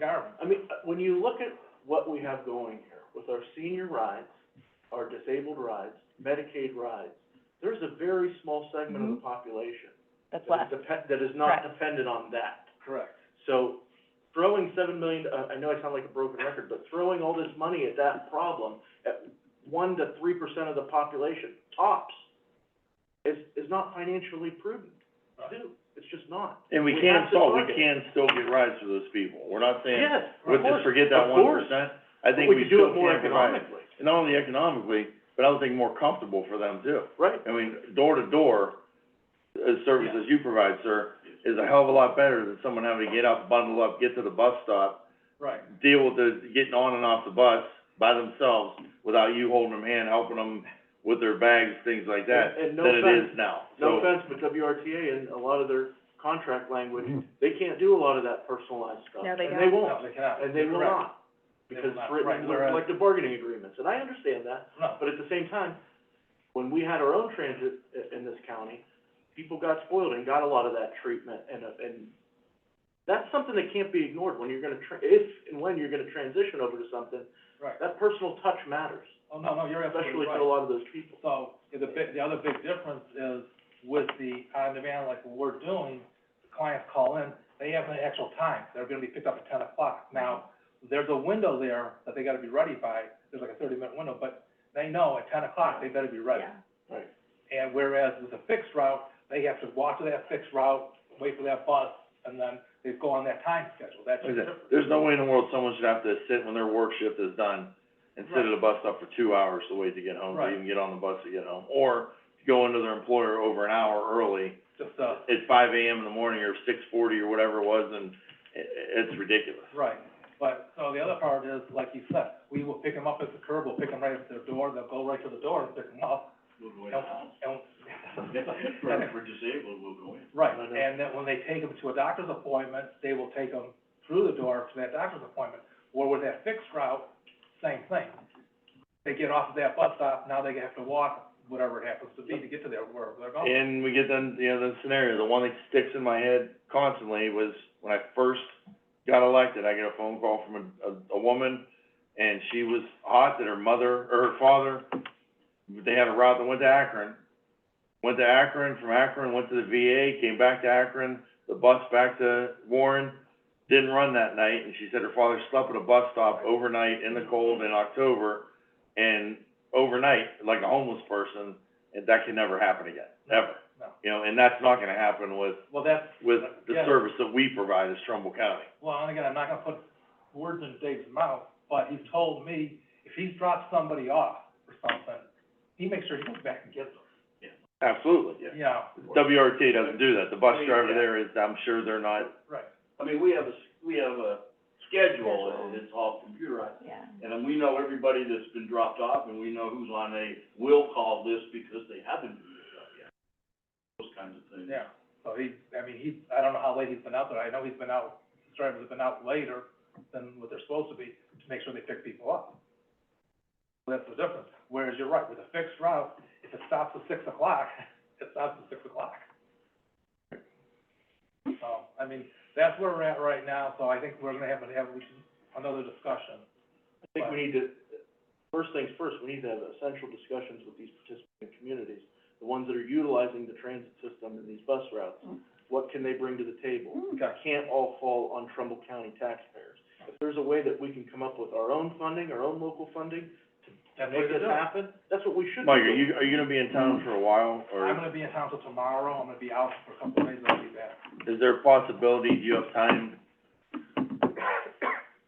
Garmin. I mean, uh, when you look at what we have going here with our senior rides, our disabled rides, Medicaid rides, there's a very small segment of the population That's that left. is depend, that is not Correct. dependent on that. Correct. So throwing seven million, uh, I know I sound like a broken record, but throwing all this money at that problem, at one to three percent of the population, tops, is, is not financially prudent to do. It's just not. And we We can have to solve, we target. can still get rides for those people, we're not saying, Yes, of let's just course, forget that of one course. percent, I But think we we could do still it more can provide. economically, And not only economically, but I would think more comfortable for them too. right? I mean, door to door, uh, services you provide, sir, is a hell of a lot better than someone having to get up, bundle up, get to the bus stop, Right. deal with the, getting on and off the bus by themselves without you holding them hand, helping them with their bags, things like that, And- and no than it offense- is now. No So, offense, but WRTA and a lot of their contract language, Mm-hmm. they can't do a lot of that personalized stuff. No, they And they don't. won't, and they will not, They will because not, it's written in right, the whereas- collective bargaining agreements, and I understand that. But at the same time, when we had our own transit i- in this county, people got spoiled and got a lot of that treatment and, uh, and that's something that can't be ignored when you're gonna, tra- if and when you're gonna transition over to something, Right. that personal touch matters, Oh, no, no, you're especially absolutely to a right. lot of those people. So, the big, the other big difference is with the on-demand, like what we're doing, the clients call in, they have an actual time, they're gonna be picked up at ten o'clock. Now, there's a window there that they gotta be ready by, there's like a thirty-minute window, but they know at ten o'clock, they better be ready. Yeah. Right. And whereas with a fixed route, they have to walk to that fixed route, wait for that bus, and then they go on that time schedule, that's like I just said, different. there's no way in the world someone should have to sit when their work shift is done and sit at a bus stop for two hours to wait to get home, to Right. even get on the bus to get home. Or go into their employer over an hour early Just, uh, at five AM in the morning or six forty or whatever it was, and i- i- it's ridiculous. Right, but, so the other part is, like you said, we will pick them up at the curb, we'll pick them right at their door, they'll go right to the door and pick them up. And, and. disabled, we'll go in. Right, and then when they take them to a doctor's appointment, they will take them through the door to that doctor's appointment. Or with that fixed route, same thing. They get off of that bus stop, now they have to walk whatever it happens to be to get to their, wherever they're going. And we get then, you know, the scenario, the one that sticks in my head constantly was when I first got elected, I get a phone call from a, a, a woman, and she was hot that her mother, or her father, they had a route that went to Akron. Went to Akron, from Akron, went to the VA, came back to Akron, the bus back to Warren, didn't run that night, and she said her father slept at a bus stop overnight in the cold in October, and overnight, like a homeless person, and that can never happen again, ever. No. You know, and that's not gonna happen with, Well, that's, with the Yeah. service that we provide as Trumbull County. well, and again, I'm not gonna put words in Dave's mouth, but he's told me, if he's dropped somebody off or something, he makes sure he goes back and gets them, Absolutely, yeah. you know? WRT doesn't do that, the bus Please, driver yeah. there is, I'm sure they're not, Right. I mean, we have a, s- we have a schedule, and it's all computerized, Yeah. and then we know everybody that's been dropped off, and we know who's on a will call list because they haven't been picked up yet. Those kinds of things. Yeah, so he, I mean, he, I don't know how late he's been out there, I know he's been out, his drivers have been out later than what they're supposed to be, to make sure they pick people up. So That's the difference, whereas you're right, with a fixed route, if it stops at six o'clock, it stops at six o'clock. So, I mean, that's where we're at right now, so I think we're gonna have to have another discussion. I think we need to, first things first, we need to have essential discussions with these participating communities, the ones that are utilizing the transit system and these bus routes. What can they bring to the table? Okay. can't all fall on Trumbull County taxpayers. If there's a way that we can come up with our own funding, our own local funding, to That's what make they're this doing. happen, that's what we should be Mike, are doing. you, are you gonna be in town for a while, I'm or gonna be in town till tomorrow, I'm gonna be out for a couple of days, I'll be back. is there a possibility, do you have time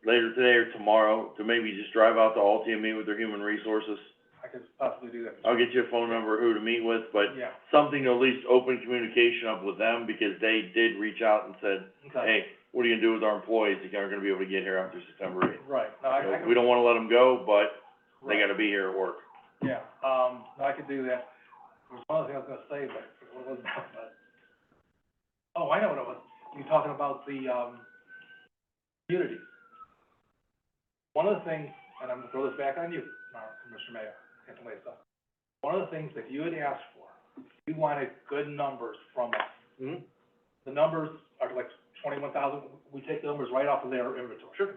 later today or tomorrow to maybe just drive out to Altie and meet with their human resources? I could possibly do that. I'll get you a phone number, who to meet with, Uh, but Yeah, something to at least open communication up with them, because they did reach out and said, okay, hey, what are you gonna do with our employees that aren't gonna be able to get here after September eighth? right, no, I, I can. We don't wanna let them go, but they right. gotta be here at work. Yeah, um, no, I could do that. There was one other thing I was gonna say, but what was that, but? Oh, I know what it was. You're talking about the, um, communities. One of the things, and I'm gonna throw this back on you, uh, Commissioner Mayor, and Lisa. One of the things that you had asked for, you wanted good numbers from us. Mhm. The numbers are like twenty-one thousand, we take the numbers right off of their inventory. Sure.